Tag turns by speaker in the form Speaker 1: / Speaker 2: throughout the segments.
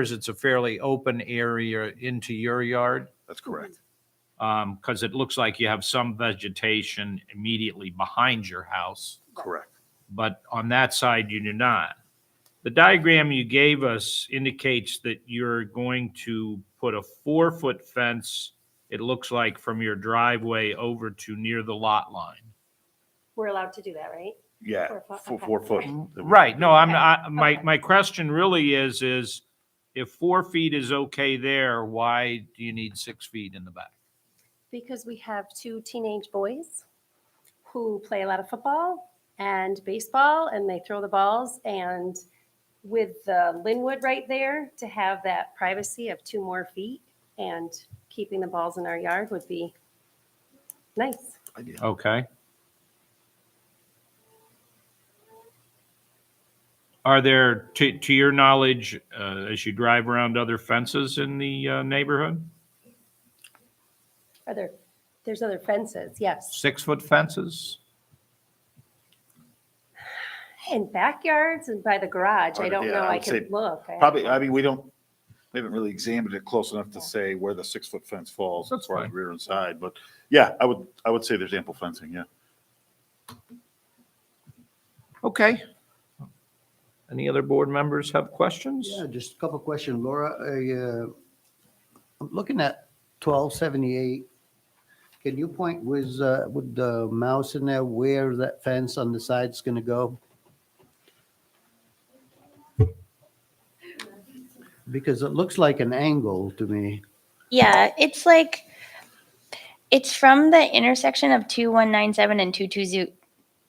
Speaker 1: it's a fairly open area into your yard?
Speaker 2: That's correct.
Speaker 1: Because it looks like you have some vegetation immediately behind your house,
Speaker 3: Mm-hmm.
Speaker 2: Correct.
Speaker 1: but on that side, you do not. The diagram you gave us indicates that you're going to put a four-foot fence, it looks like, from your driveway over to near the lot line.
Speaker 3: We're allowed to do that, right?
Speaker 2: Yeah,
Speaker 3: Four foot,
Speaker 2: four,
Speaker 3: okay.
Speaker 2: four foot.
Speaker 1: Right, no, I'm,
Speaker 3: Okay,
Speaker 1: I, my,
Speaker 3: okay.
Speaker 1: my question really is, is if four feet is okay there, why do you need six feet in the back?
Speaker 3: Because we have two teenage boys who play a lot of football and baseball and they throw the balls. And with the Linwood right there, to have that privacy of two more feet and keeping the balls in our yard would be nice.
Speaker 2: Idea.
Speaker 1: Okay. Are there, to, to your knowledge, uh, as you drive around other fences in the uh, neighborhood,
Speaker 3: Are there, there's other fences, yes.
Speaker 1: six-foot fences?
Speaker 3: And backyards and by the garage, I
Speaker 2: Or,
Speaker 3: don't
Speaker 2: yeah,
Speaker 3: know,
Speaker 2: I
Speaker 3: I
Speaker 2: would say
Speaker 3: can look. I-
Speaker 2: Probably, I mean, we don't, we haven't really examined it close enough to say where the six foot fence falls.
Speaker 1: That's
Speaker 2: for
Speaker 1: fine.
Speaker 2: Rear and side, but yeah, I would, I would say there's ample fencing, yeah.
Speaker 1: Okay. Any other board members have questions?
Speaker 4: Yeah, just a couple of questions, Laura. I, uh, I'm looking at twelve seventy-eight. Can you point with, uh, with the mouse in there where that fence on the side's gonna go? Because it looks like an angle to me.
Speaker 5: Yeah, it's like it's from the intersection of 2197 and 22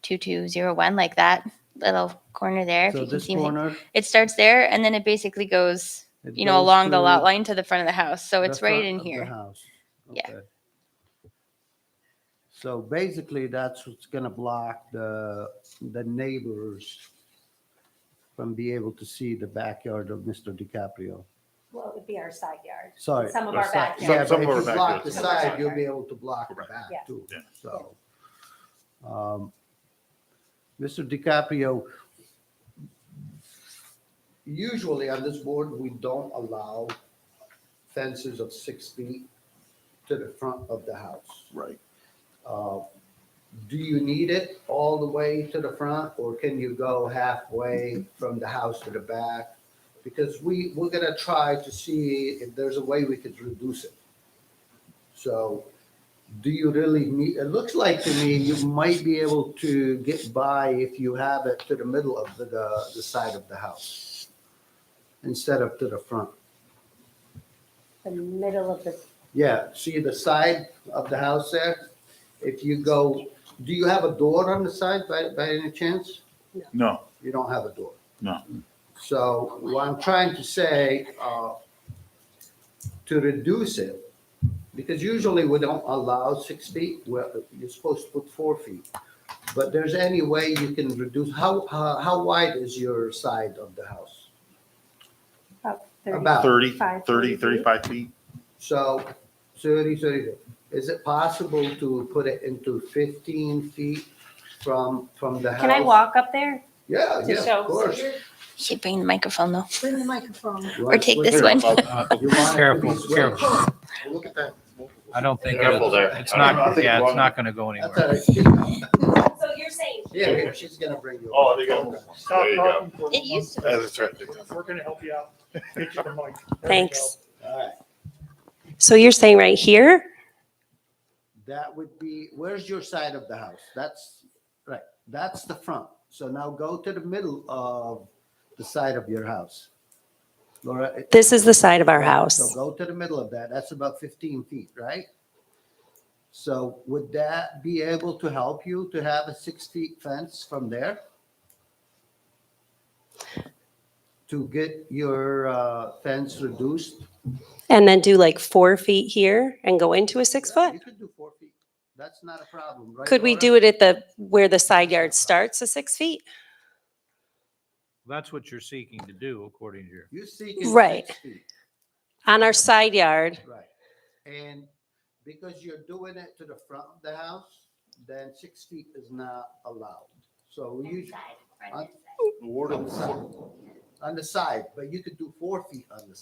Speaker 5: 2201 like that little corner there if
Speaker 4: So
Speaker 5: you can
Speaker 4: this
Speaker 5: see me.
Speaker 4: corner.
Speaker 5: It starts there and then it basically goes,
Speaker 4: it
Speaker 5: you know,
Speaker 4: goes
Speaker 5: along the
Speaker 4: to
Speaker 5: lot line to the front of the house. So
Speaker 4: the
Speaker 5: it's right
Speaker 4: front
Speaker 5: in
Speaker 4: of the
Speaker 5: here.
Speaker 4: house.
Speaker 5: Yeah.
Speaker 4: Okay. So basically, that's what's gonna block the, the neighbors from being able to see the backyard of Mr. DiCaprio.
Speaker 3: Well, it would be our side yard.
Speaker 4: Sorry.
Speaker 3: Some of
Speaker 2: That's
Speaker 3: our
Speaker 2: not-
Speaker 3: backyard.
Speaker 2: Some-
Speaker 4: Yeah,
Speaker 2: some
Speaker 4: but if
Speaker 2: of our
Speaker 4: you
Speaker 2: backyard.
Speaker 4: block the side, you'll be able to block the back
Speaker 3: Correct.
Speaker 4: too,
Speaker 2: Yeah.
Speaker 4: so. um, Mr. DiCaprio, usually on this board, we don't allow fences of six feet to the front of the house.
Speaker 2: Right.
Speaker 4: Uh, Do you need it all the way to the front, or can you go halfway from the house to the back? Because we, we're gonna try to see if there's a way we could reduce it. So do you really need, it looks like to me you might be able to get by if you have it to the middle of the, the- the side of the house instead of to the front.
Speaker 3: The middle of the
Speaker 4: Yeah, see the side of the house there? If you go, do you have a door on the side by, by any chance?
Speaker 2: No,
Speaker 4: You don't have a door.
Speaker 2: No.
Speaker 4: So what I'm trying to say, uh, to reduce it, because usually we don't allow six feet, well, you're supposed to put four feet. But there's any way you can reduce, how, how, how wide is your side of the house?
Speaker 6: Oh,
Speaker 3: About
Speaker 4: About.
Speaker 2: 30,
Speaker 3: Five,
Speaker 2: 30,
Speaker 3: thirty feet.
Speaker 2: 35 feet.
Speaker 4: So 30, 30, is it possible to put it into 15 feet from, from the house?
Speaker 3: Can I walk up there?
Speaker 4: Yeah,
Speaker 3: to
Speaker 4: yeah,
Speaker 3: show?
Speaker 4: of course.
Speaker 5: She bring the microphone though.
Speaker 7: Bring the microphone.
Speaker 5: Or take this one.
Speaker 4: You want it to be
Speaker 1: Uh, Careful,
Speaker 4: square.
Speaker 1: careful.
Speaker 2: Look at that.
Speaker 1: I don't think,
Speaker 2: Careful
Speaker 1: it-
Speaker 2: there.
Speaker 1: it's
Speaker 2: I don't know, I
Speaker 1: not,
Speaker 2: think
Speaker 1: yeah,
Speaker 2: one-
Speaker 1: it's not going to go
Speaker 4: That's
Speaker 1: anywhere.
Speaker 4: all right.
Speaker 3: So you're saying
Speaker 4: Yeah, yeah, she's gonna bring you.
Speaker 2: Oh, they got, there you go.
Speaker 5: It used to.
Speaker 2: That's right.
Speaker 8: We're gonna help you out. Get you the mic. There you
Speaker 3: Thanks.
Speaker 4: All right,
Speaker 3: So you're saying right here?
Speaker 4: that would be, where's your side of the house? That's, right, that's the front. So now go to the middle of the side of your house. Laura, it-
Speaker 3: This is the side of our
Speaker 4: So
Speaker 3: house.
Speaker 4: go to the middle of that. That's about 15 feet, right? So would that be able to help you to have a six feet fence from there? To get your uh, fence reduced?
Speaker 6: And then do like four feet here and go into a six
Speaker 4: Yeah,
Speaker 6: foot?
Speaker 4: You could do four feet. That's not a problem, right?
Speaker 6: Could we do it at the, where the side yard starts, the six feet?
Speaker 1: That's what you're seeking to do, according to your.
Speaker 4: You're seeking
Speaker 6: Right.
Speaker 4: six feet,
Speaker 6: On our side yard,
Speaker 4: right? And because you're doing it to the front of the house, then six feet is not allowed. So you,
Speaker 2: The ward of the
Speaker 4: on the side, but you could do four feet on the